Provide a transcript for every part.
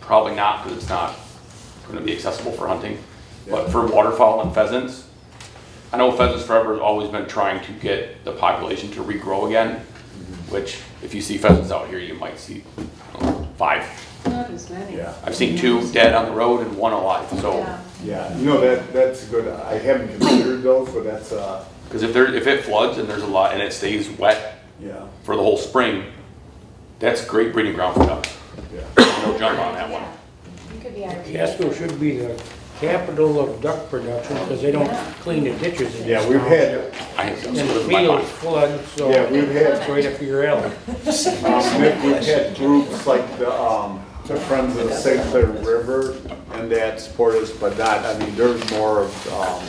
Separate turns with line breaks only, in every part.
probably not, because it's not gonna be accessible for hunting. But for waterfowl and pheasants, I know Pheasants Forever has always been trying to get the population to regrow again,
Mm-hmm.
which if you see pheasants out here, you might see I don't know, five.
Not as many.
Yeah.
I've seen two dead on the road and one alive, so,
Yeah.
Yeah, no, that, that's good. I haven't considered those, but that's, uh,
because if there, if it floods and there's a lot, and it stays wet
yeah,
for the whole spring, that's great breeding ground for ducks.
yeah.
No jump on that one.
You could be our.
Casco should be the capital of duck production because they don't clean the ditches. in
Yeah,
this
we've
town.
had,
I have
And
ducks
the
in my
fields
mind.
flood, so
yeah, we've
it's
had,
right up your alley.
um, Nick, we've had groups like the, um, the Friends of St. Clair River and that support us, but not, I mean, there's more of, um,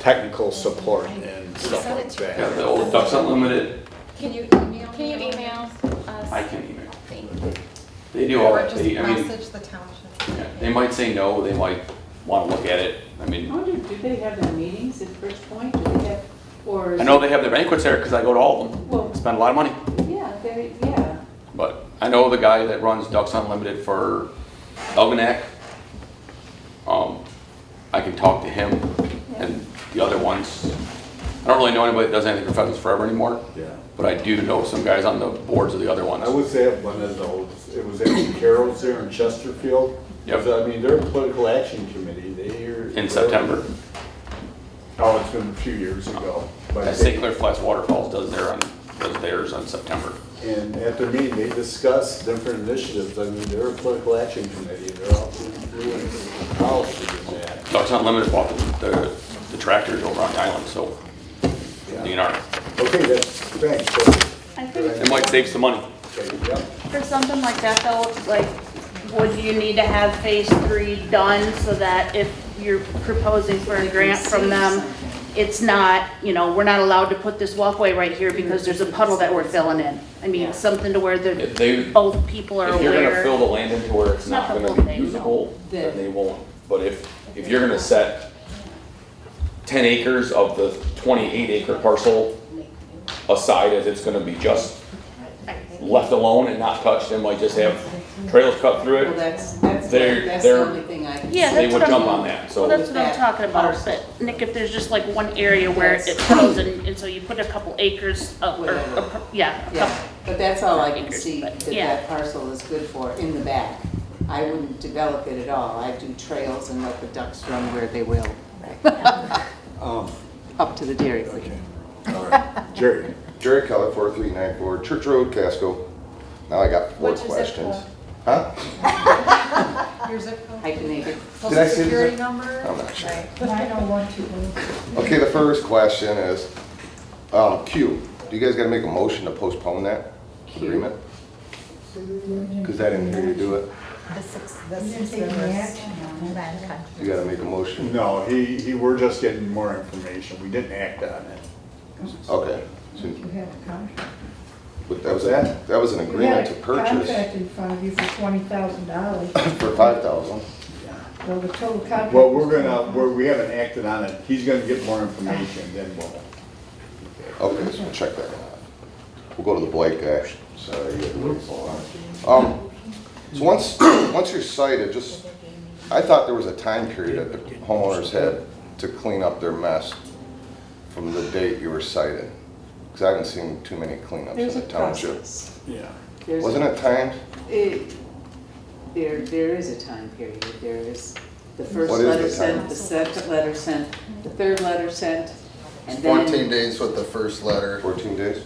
technical support and stuff like
Yeah,
that.
the old Ducks Unlimited,
Can you email?
Can you email us?
I can email.
Thank
They do all,
Or just
they, I mean,
message the township.
yeah, they might say no, they might want to look at it. I
I
mean,
wonder, do they have their meetings at First Point? Do they have, or? is
I know
it-
they have their banquets there because I go to all of them.
Well,
Spend a lot of money.
yeah, they, yeah.
But I know the guy that runs Ducks Unlimited for Elginak. Um, I can talk to him and the other ones. I don't really know anybody that does anything for Pheasants Forever anymore,
Yeah.
but I do know some guys on the boards of the other
I
ones.
would say at one of those, it was at Carol's there in Chesterfield.
Yep.
I mean, they're a political action committee, they hear.
In September,
Oh, it's been a few years ago. but
Uh,
they-
St. Clair Flats Waterfalls does their, on- does theirs on September.
And at their meeting, they discuss different initiatives. I mean, they're a political action committee, they're all influencing policy and that.
Ducks Unlimited bought the- the, the tractors over on the island, so
Yeah.
DNR.
Okay, that's, thanks.
I think
It might save some money.
So, okay, yep.
for something like that though, like, would you need to have phase three done so that if you're proposing for a grant from them, it's not, you know, we're not allowed to put this walkway right here because there's a puddle that we're filling in? I mean, something to where
If
the,
they,
both people are
if you're gonna fill
aware.
the land into where it's
Not
not
the
gonna
whole
be
thing, no.
usable, then
Then-
they won't. But if, if you're gonna set ten acres of the twenty-eight acre parcel aside as it's gonna be just left alone and not touched, and might just have trails cut through
Well,
it,
that's, that's,
They're-
that's the
they're-
only thing I can.
Yeah,
see.
they
that's
would
what I'm-
jump on that,
Well,
so.
that's what I'm talking about, but Nick, if there's just like one area where it
Yes.
fills in, and so you put a couple acres of, or,
Whatever.
a pr- yeah, a couple
Yeah, but that's all I can
Acres,
see
but
that that
yeah.
parcel is good for, in the back. I wouldn't develop it at all. I'd do trails and let the ducks run where they will,
Um,
up to the dairy queen.
okay, all right. Jerry,
Jerry Keller, 4394 Church Road, Casco. Now I got four
What's your zip
questions. Huh?
Your zip code?
I can make it.
Did I say the
Security
zip-
number?
I'm not sure.
Right.
Okay, the first question is, um, Q, do you guys gotta make a motion to postpone that agreement? Cause I didn't hear you do it.
The six, the six rivers by the country.
You gotta make a motion.
no, he, he, we're just getting more information. We didn't act on it.
Okay. So
You had a contract.
but That was, that that was an agreement to
You had a
purchase
contract in front of you for twenty thousand dollars,
for 5,000.
so the total contract.
Well, we're gonna, we're, we haven't acted on it. He's gonna get more information, then we'll.
Okay, so check that out. We'll go to the Blake guy. Sorry, you had to wait so long. Um, so once, once you're cited, just, I thought there was a time period that the homeowners had to clean up their mess from the date you were cited. Because I haven't seen too many cleanups in
There's a
the township.
process.
Yeah.
There's a
Wasn't it timed?
It, there, there is a time period, there is the first
What is the
letter
time?
sent, the second letter sent, the third letter sent, and then.
14 days with the first letter,
14 days?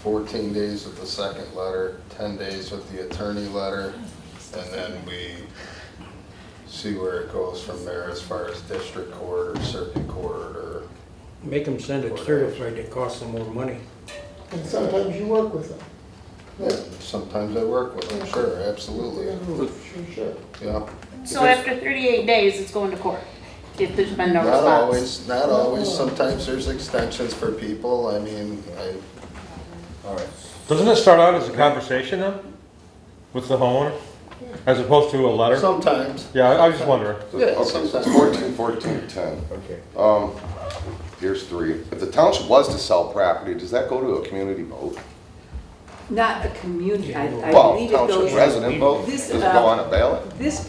14 days with the second letter, 10 days with the attorney letter, and then we see where it goes from there as far as district court or circuit court or,
Make them send it certified, it costs them more money.
And sometimes you work with them.
Yeah, sometimes I work with them, sure, absolutely,
Sure.
yeah.
So after 38 days, it's going to court, if there's been no
Not
response?
always, not always, sometimes there's extensions for people, I mean, I,
All right.
Doesn't it start out as a conversation though, with the homeowner, as opposed to a letter?
sometimes,
Yeah, I I was just wondering.
So-
Yeah,
Okay, so it's
sometime.
14, 14, 10.
Okay.
Um, here's three. If the township was to sell property, does that go to a community vote? Not a community, I I
Well,
believe it
township
goes.
resident vote,
This,
does it
uh,
go on a ballot?
This